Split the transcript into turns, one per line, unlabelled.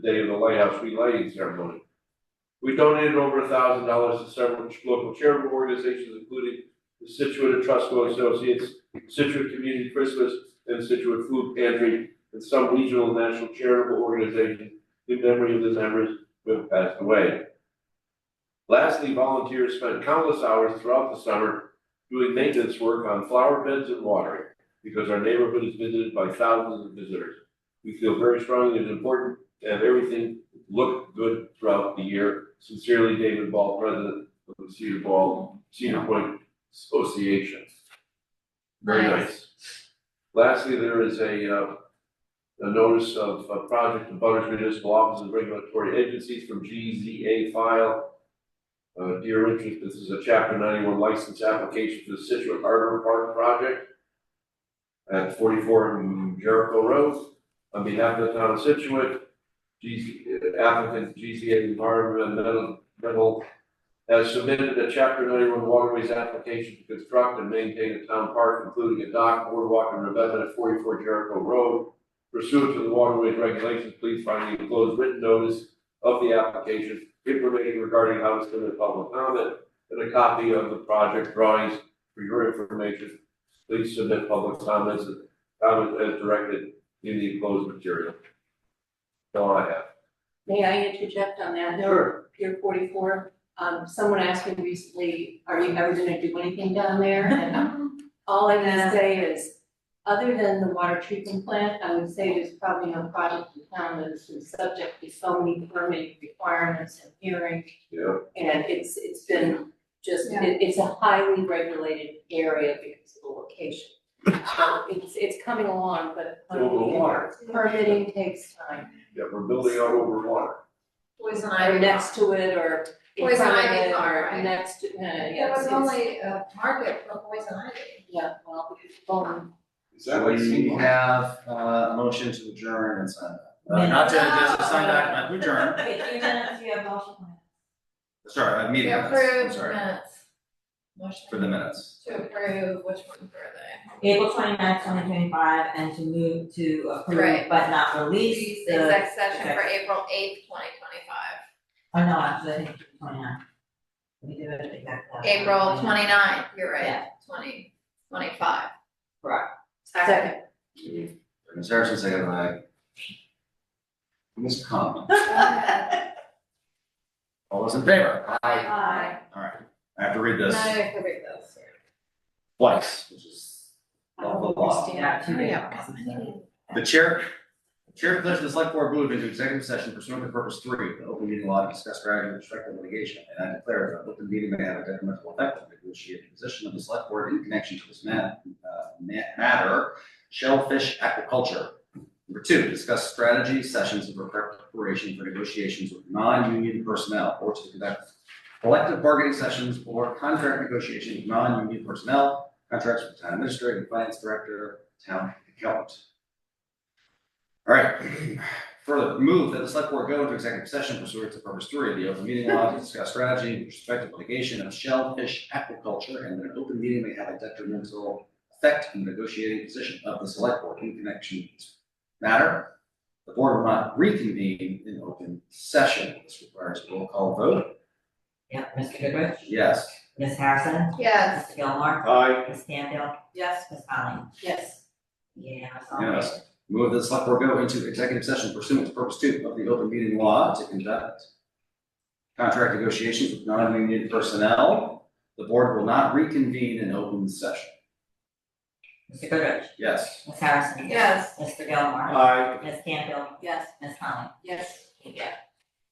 the day of the lighthouse relighting ceremony. We donated over a thousand dollars to several ch- local charitable organizations, including the Situate Etrusco Associates, Situate Community Christmas, and Situate Food Pantry, and some regional and national charitable organizations in memory of the members who have passed away. Lastly, volunteers spent countless hours throughout the summer doing maintenance work on flower beds and watering, because our neighborhood is visited by thousands of visitors. We feel very strongly it's important to have everything look good throughout the year. Sincerely, David Ball, President of the Cedar Ball, Cedar Point Association. Very
Nice.
nice. Lastly, there is a, uh, a notice of a project of Butters Municipal Office and Regulatory Agencies from GZA file. Uh, dear interest, this is a chapter ninety-one license application for the Situate Harbor Park project at forty-four Jericho Road. On behalf of the town of Situate, GZ, applicant GZA Environmental Metal has submitted a chapter ninety-one waterways application to construct and maintain a town park, including a dock, boardwalk, and revetment at forty-four Jericho Road. Pursuant to the waterways regulations, please find the enclosed written notice of the application, information regarding how it's going to public comment, and a copy of the project drawings for your information. Please submit public comments and comments as directed in the enclosed material. That's all I have.
May I interject on that?
Sure.
Pier forty-four, um, someone asked me recently, are you ever gonna do anything down there? And um, all I can say is, other than the water treatment plant, I would say there's probably no project in town that has been subject to so many permitting requirements and hearings.
Yeah,
And it's, it's been just,
Yeah.
it, it's a highly regulated area because of the location. So It's, it's coming along, but
over water.
permitting takes time.
Yeah, we're building out over water.
Poison
Or
ivy.
next to it or in
Poison
front of
ivy
it
farm,
or
right?
next to, uh,
There
yes,
was
it's-
only a market for poison ivy.
yeah, well, boom.
Is
We have uh, a motion to adjourn and sign that. Uh, Not to, just a sign document, we adjourn, sorry, a meeting
To
minutes, I'm
approve
sorry,
minutes. Motion.
for the minutes.
To approve, which one were they?
April 29th, twenty twenty-five, and to move to approve
Right.
but not release
uh,
The
the,
Exec session for April eighth, twenty twenty-five,
or oh, no, actually, I think it's 29. We do it exactly.
April 29th. you're right,
Yeah.
twenty twenty-five.
Correct.
Second.
Ms. Harrison, second by Ms. Conlon. All those in favor?
Aye.
All right, I have to read
No,
this
I have to read those.
twice, which is all the law.
Yeah, two days.
The chair, chair declares the select board moved into executive session pursuant to purpose three, of the open meeting law to discuss strategy with respect to litigation. And I declare that an open meeting may have a detrimental effect on the negotiated position of the select board in connection to this ma- uh, ma- matter, shellfish aquaculture. Number two, discuss strategy sessions of preparation for negotiations with non-union personnel or to conduct collective bargaining sessions or contract negotiations with non-union personnel, contracts with town administrator, and finance director, town accountant. All right, further, move that the select board go into executive session pursuant to purpose three of the open meeting law to discuss strategy with respect to litigation of shellfish aquaculture and that an open meeting may have a detrimental effect on the negotiating position of the select board in connection with this matter. The board will not reconvene in open session. This requires a roll call vote.
Yeah, Mr. Goodrich,
Yes.
Ms. Harrison,
Yes.
Mr. Gilmore,
Aye.
Ms. Stanfield,
Yes.
Ms. Conley.
Yes.
Yeah, that's all.
Yes. Move that the select board go into executive session pursuant to purpose two of the open meeting law to conduct contract negotiations with non-union personnel. The board will not reconvene in open session.
Mr. Goodrich,
Yes.
Ms. Harrison.
Yes.
Mr. Gilmore.
Aye.
Ms. Stanfield,
Yes.
Ms. Conley.
Yes.
Yeah.